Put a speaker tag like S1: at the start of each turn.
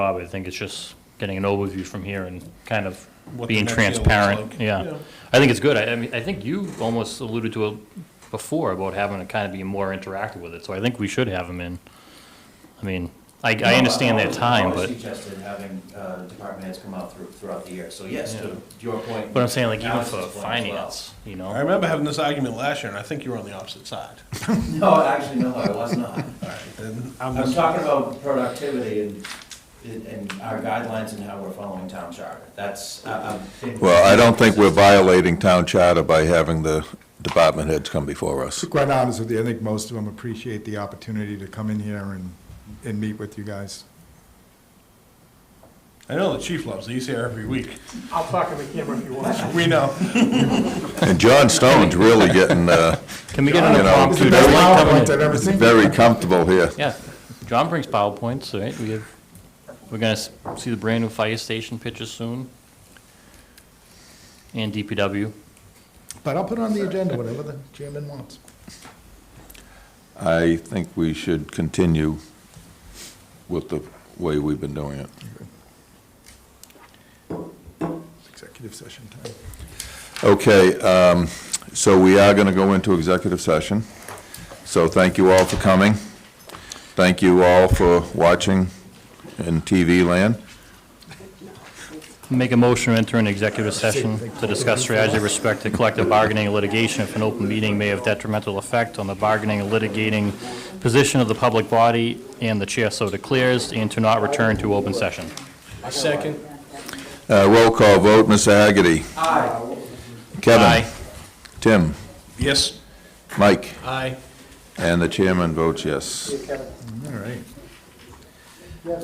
S1: Bob, I think it's just getting an overview from here and kind of
S2: What the
S1: being
S2: next year looks
S1: transparent.
S2: like.
S1: Yeah. I think it's good. I, I mean, I think you almost alluded to it before about having to kind of be more interactive with it, so I think we should have them in. I mean, I, I understand their time,
S3: I
S1: but,
S3: always suggested having uh, department heads come out through- throughout the year, so yes,
S1: Yeah.
S3: to your point.
S1: but I'm saying like even
S3: Alex's
S1: for
S3: point as well.
S1: finance, you
S2: I
S1: know?
S2: remember having this argument last year, and I think you were on the opposite side.
S3: No, actually, no, I was not.
S2: All right, then
S3: I
S2: I'm
S3: was
S2: just-
S3: talking about productivity and, and our guidelines and how we're following town charter. That's, I- I've been.
S4: Well, I don't think we're violating town charter by having the department heads come before us.
S5: Quite honest with you, I think most of them appreciate the opportunity to come in here and, and meet with you guys.
S2: I know the chief loves these here every week.
S6: I'll talk in the camera if you want.
S2: We know.
S4: And John Stone's really getting, uh,
S1: Can we get an
S4: You know,
S5: It's the
S1: impromptu?
S5: best
S1: John coming in?
S5: PowerPoint I've ever seen.
S4: very comfortable here.
S1: Yeah, John brings PowerPoints, right? We have, we're gonna s- see the brand new fire station pictures soon. And DPW.
S5: But I'll put it on the agenda, whatever the chairman wants.
S4: I think we should continue with the way we've been doing it.
S5: Executive session time.
S4: Okay, um, so we are going to go into executive session. So thank you all for coming. Thank you all for watching in TV land.
S1: Make a motion to enter an executive session to discuss strategy with respect to collective bargaining and litigation if an open meeting may have detrimental effect on the bargaining and litigating position of the public body and the chair so declares, and to not return to open session.
S2: Second.
S4: Uh, Roll call vote, Mr. Hagerty. Aye.
S1: Aye.
S4: Kevin. Tim.
S2: Yes.
S4: Mike.
S2: Aye.
S4: And the chairman votes yes.
S5: All right.